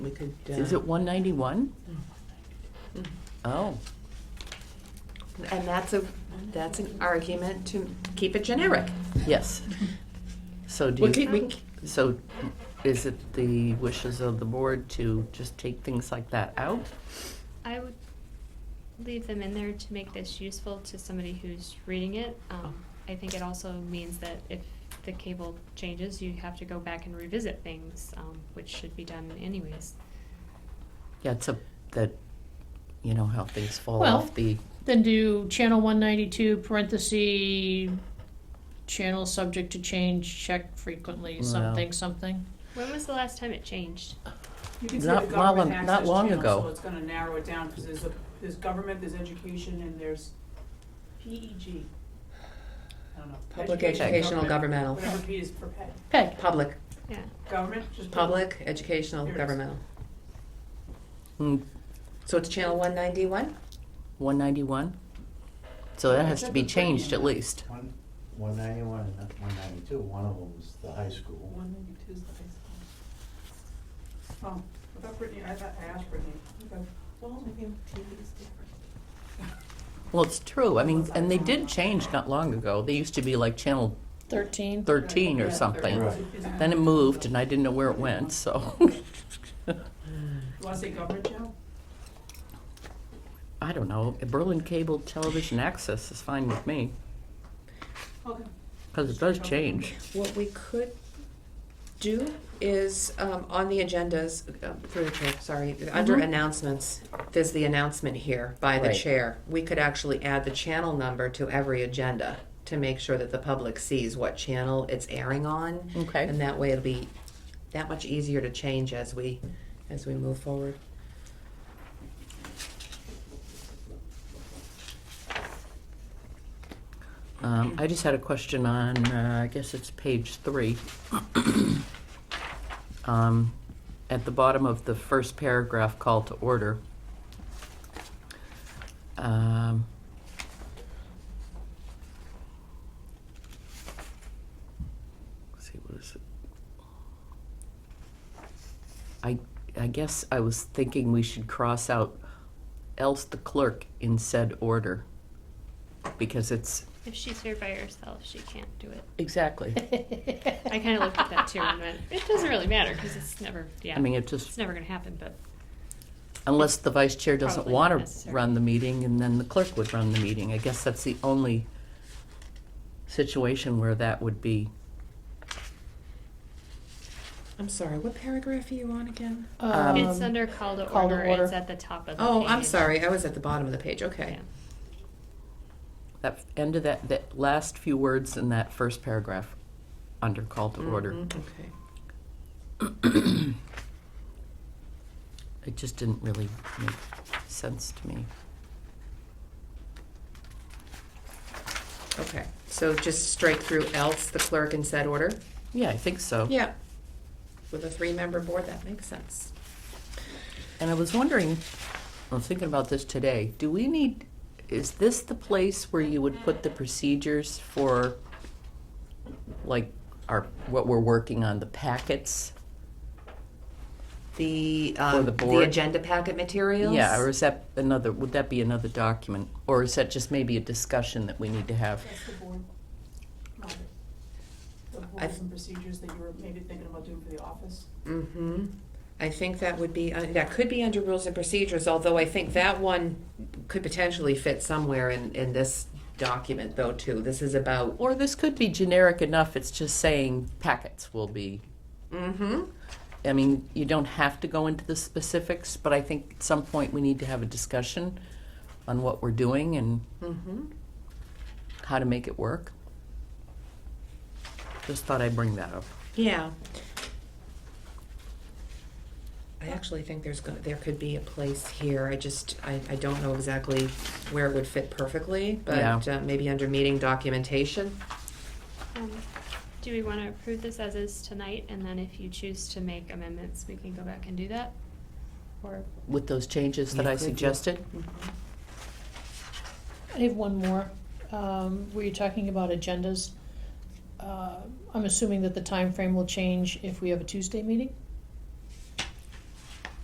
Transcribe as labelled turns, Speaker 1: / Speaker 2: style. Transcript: Speaker 1: We could. uh,
Speaker 2: Is it one ninety-one?
Speaker 3: Mm.
Speaker 2: Oh,
Speaker 4: And that's a, that's an argument to keep it generic.
Speaker 2: yes. So do
Speaker 1: We could,
Speaker 2: you,
Speaker 1: we, c-
Speaker 2: so is it the wishes of the board to just take things like that out?
Speaker 5: I would leave them in there to make this useful to somebody who's reading it. Um, I think it also means that if the cable changes, you have to go back and revisit things, um, which should be done anyways.
Speaker 2: Yeah, it's a, that, you know how things fall
Speaker 6: Well-
Speaker 2: off the,
Speaker 6: Then do channel one ninety-two parentheses, channel subject to change, check frequently,
Speaker 2: Well.
Speaker 6: something, something.
Speaker 5: When was the last time it changed?
Speaker 3: You can say
Speaker 2: Not
Speaker 3: the government
Speaker 2: long- not
Speaker 3: access
Speaker 2: long
Speaker 3: channel,
Speaker 2: ago.
Speaker 3: so it's gonna narrow it down, cause there's a, there's government, there's education, and there's PEG. I don't know.
Speaker 1: public
Speaker 3: Education,
Speaker 1: educational governmental,
Speaker 3: Whatever P is for pet,
Speaker 6: Peg,
Speaker 1: public,
Speaker 5: Yeah,
Speaker 3: government, just.
Speaker 1: public educational
Speaker 3: Here it is.
Speaker 1: governmental.
Speaker 2: mm,
Speaker 1: So it's channel one ninety-one?
Speaker 2: 191? So that has to be changed at least.
Speaker 7: One, one ninety-one and that's one ninety-two, one of them's the high school.
Speaker 3: One ninety-two is the high school. Oh, I thought Brittany, I thought I asked Brittany, Okay. well, maybe TV is different.
Speaker 2: Well, it's true, I mean, and they did change not long ago. They used to be like channel
Speaker 6: thirteen.
Speaker 2: 13 or something.
Speaker 7: Right.
Speaker 3: Is it-
Speaker 2: Then it moved and I didn't know where it went, so.
Speaker 3: You wanna say government channel?
Speaker 2: I don't know, Berlin Cable Television Access is fine with me,
Speaker 3: Okay.
Speaker 2: because it does change.
Speaker 1: What we could do is, um, on the agendas, uh, through the chair, sorry, under
Speaker 4: Mm-hmm.
Speaker 2: Mhm.
Speaker 1: announcements, there's the announcement here by the
Speaker 2: Right.
Speaker 1: chair. We could actually add the channel number to every agenda to make sure that the public sees what channel it's airing on.
Speaker 2: Okay.
Speaker 1: And that way it'll be that much easier to change as we, as we move forward.
Speaker 2: Um, I just had a question on, uh, I guess it's page three. Um, At the bottom of the first paragraph, call to order. Um, let's see, what is it? I, I guess I was thinking we should cross out else the clerk in said order, because it's
Speaker 5: if she's here by herself, she can't do it.
Speaker 2: Exactly.
Speaker 5: I kind of looked at that too and went, it doesn't really matter because it's never, yeah.
Speaker 2: I mean, it
Speaker 5: It's
Speaker 2: just,
Speaker 5: never gonna happen, but
Speaker 2: unless the vice chair doesn't
Speaker 5: Probably
Speaker 2: want to
Speaker 5: unnecessary.
Speaker 2: run the meeting, and then the clerk would run the meeting. I guess that's the only situation where that would be.
Speaker 1: I'm sorry, what paragraph are you on again?
Speaker 2: Um,
Speaker 5: it's under call to
Speaker 6: call to
Speaker 5: order.
Speaker 6: order.
Speaker 5: It's at the top of the
Speaker 1: Oh, I'm
Speaker 5: page.
Speaker 1: sorry, I was at the bottom of the page, okay.
Speaker 5: Yeah.
Speaker 2: That end of that, that last few words in that first paragraph under call to order.
Speaker 1: Mhm, Okay.
Speaker 2: It just didn't really make sense to me.
Speaker 1: Okay, so just straight through else, the clerk in said order?
Speaker 2: Yeah, I think so.
Speaker 1: Yeah. With a three-member board, that makes sense.
Speaker 2: And I was wondering, I was thinking about this today, do we need, is this the place where you would put the procedures for, like, our, what we're working on, the packets?
Speaker 1: The,
Speaker 2: For
Speaker 1: um,
Speaker 2: the
Speaker 1: the
Speaker 2: board?
Speaker 1: agenda packet materials?
Speaker 2: Yeah, or is that another, would that be another document? Or is that just maybe a discussion that we need to have?
Speaker 3: That's the board. Not The the
Speaker 1: I-
Speaker 3: rules and procedures that you were maybe thinking about doing for the office.
Speaker 1: Mm-hmm. I think that would be, uh, that could be under rules and procedures, although I think that one could potentially fit somewhere in, in this document though, too. This is about,
Speaker 2: Or this could be generic enough, it's just saying packets will be,
Speaker 1: mm-hmm,
Speaker 2: I mean, you don't have to go into the specifics, but I think at some point we need to have a discussion on what we're doing and
Speaker 1: mm-hmm.
Speaker 2: how to make it work. Just thought I'd bring that up.
Speaker 1: Yeah. I actually think there's, go- there could be a place here, I just, I, I don't know exactly where it would fit perfectly, but uh, maybe under meeting documentation.
Speaker 5: Um, Do we want to approve this as is tonight, and then if you choose to make amendments, we can go back and do that? Or,
Speaker 2: With those changes that
Speaker 1: Yeah,
Speaker 2: I
Speaker 1: could you?
Speaker 2: suggested?
Speaker 6: I have one more. Um, were you talking about agendas? Uh, I'm assuming that the time frame will change if we have a Tuesday meeting?